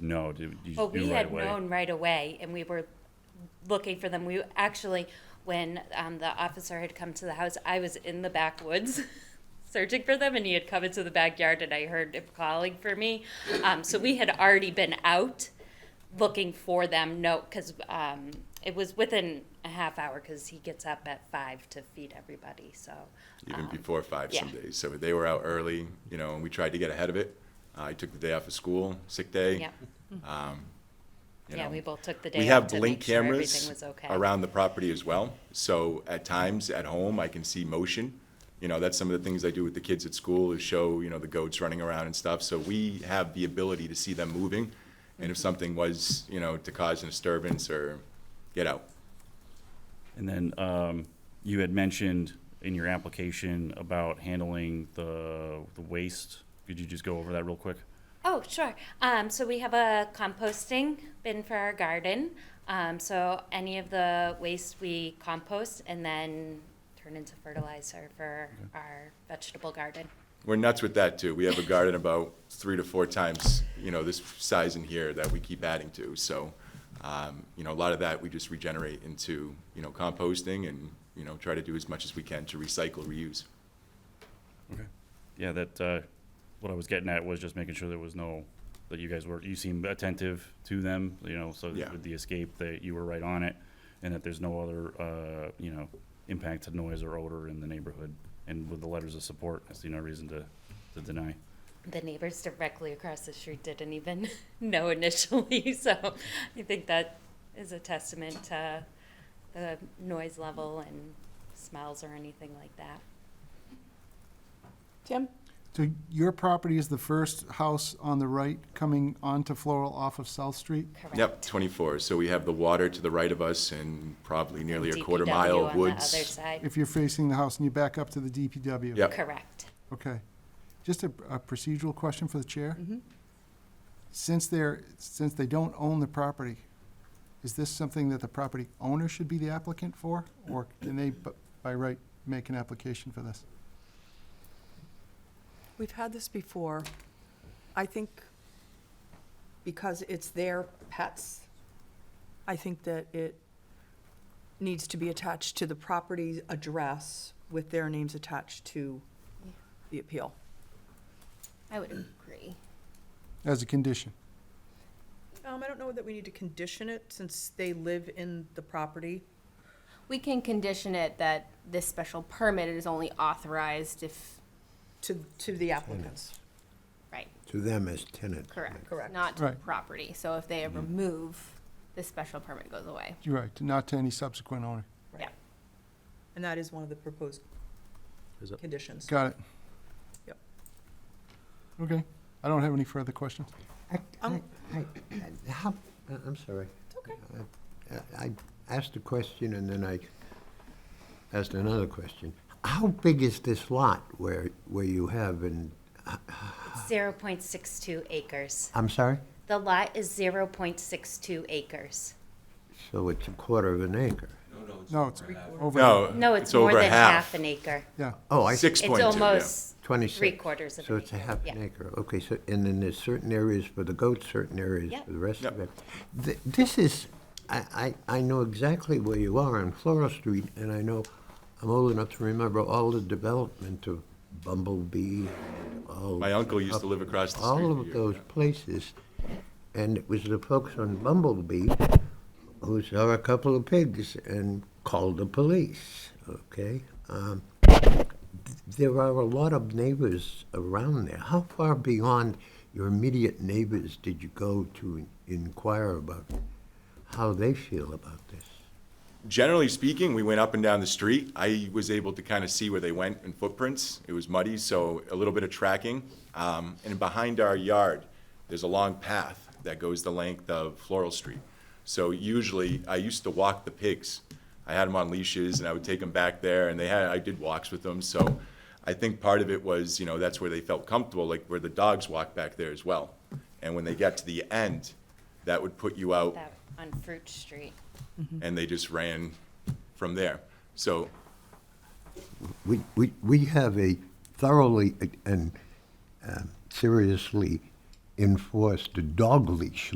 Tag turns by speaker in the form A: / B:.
A: know? Did you
B: Well,
A: knew
B: we
A: right
B: had
A: away?
B: known right away, and we were looking for them. We actually, when um, the officer had come to the house, I was in the backwoods searching for them, and he had come into the backyard, and I heard him calling for me. Um, so we had already been out looking for them. No, because um, it was within a half hour, because he gets up at five to feed everybody. So
C: even before five some
B: yeah.
C: days. So they were out early, you know, and we tried to get ahead of it. Uh, I took the day off of school, sick day.
B: yeah,
C: you
B: yeah,
C: know.
B: we both took the day.
C: We
B: off
C: have
B: to
C: blink
B: make sure
C: cameras
B: everything was okay.
C: around the property as well. So at times at home, I can see motion. You know, that's some of the things I do with the kids at school is show, you know, the goats running around and stuff. So we have the ability to see them moving. And if something was, you know, to cause a disturbance or get out.
A: And then um, you had mentioned in your application about handling the the waste. Could you just go over that real quick?
B: Oh, sure. Um, so we have a composting bin for our garden. Um, so any of the waste we compost and then turn into fertilizer for our vegetable garden.
C: We're nuts with that too. We have a garden about three to four times, you know, this size in here that we keep adding to. So, um, you know, a lot of that we just regenerate into, you know, composting and, you know, try to do as much as we can to recycle, reuse.
A: Yeah, that uh, what I was getting at was just making sure there was no that you guys were you seemed attentive to them. You know, so
C: Yeah.
A: with the escape that you were right on it, and that there's no other uh, you know impact to noise or odor in the neighborhood. And with the letters of support, I see no reason to to deny.
B: The neighbors directly across the street didn't even know initially. So I think that is a testament to the noise level and smells or anything like that.
D: Tim?
E: So your property is the first house on the right coming onto Floral off of South Street?
B: Correct.
C: Yep, 24. So we have the water to the right of us and probably nearly a quarter
B: DPW
C: mile
B: on
C: of
B: The other
C: woods.
B: side.
E: If you're facing the house and you back up to the DPW?
C: Yep.
B: Correct.
E: Okay. Just a, a procedural question for the chair? Since they're, since they don't own the property, is this something that the property owner should be the applicant for? Or can they, b- by right, make an application for this?
D: We've had this before. I think because it's their pets, I think that it needs to be attached to the property address with their names attached to the appeal.
F: I would agree.
E: As a condition?
D: Um, I don't know that we need to condition it since they live in the property.
F: We can condition it that this special permit is only authorized if,
D: To, to the applicants.
F: right,
G: To them as tenant.
F: correct.
D: Correct.
F: Not to the
E: Right.
F: property. So if they remove, the special permit goes away.
E: You're right, not to any subsequent owner.
F: Yeah.
D: And that is one of the proposed
A: Is it-
D: conditions.
E: Got it?
D: Yep.
E: Okay. I don't have any further questions.
G: I, I,
D: Um,
G: I, I- how, I- I'm sorry. It's okay. I asked a question and then I asked another question. How big is this lot where, where you have in,
C: Ah.
B: 0.62 acres.
G: I'm sorry?
B: The lot is 0.62 acres.
C: Uh,
G: So it's a quarter of an acre.
E: No, it's over.
C: No,
B: No, it's, more
C: over
B: than half.
C: half.
B: an acre.
E: Yeah,
G: Oh, I, see.
C: Six
B: It's
C: point two, yeah.
B: almost
G: twenty-six.
B: three quarters of
G: So
B: an
G: it's a
B: acre,
G: half
B: yeah.
G: an acre. Okay, so, and then there's certain areas for the goats, certain areas
B: Yep.
G: for the rest of
C: Yep.
G: it. Th- This is, I, I, I know exactly where you are on Floral Street, and I know, I'm old enough to remember all the development of Bumblebee, and all.
C: My uncle used to live across the street.
G: All
C: here.
G: of those places, and it was the folks on Bumblebee who saw a couple of pigs and called the police, okay? Um, There are a lot of neighbors around there. How far beyond your immediate neighbors did you go to inquire about how they feel about this?
C: generally speaking, we went up and down the street. I was able to kind of see where they went in footprints. It was muddy, so a little bit of tracking. Um, and behind our yard, there's a long path that goes the length of Floral Street. So usually, I used to walk the pigs. I had them on leashes, and I would take them back there, and they had I did walks with them. So I think part of it was, you know, that's where they felt comfortable, like where the dogs walk back there as well. And when they got to the end, that would put you out
B: That on Fruit Street.
C: and they just ran from there. So
G: We, we, we have a thoroughly and um, seriously enforced dog leash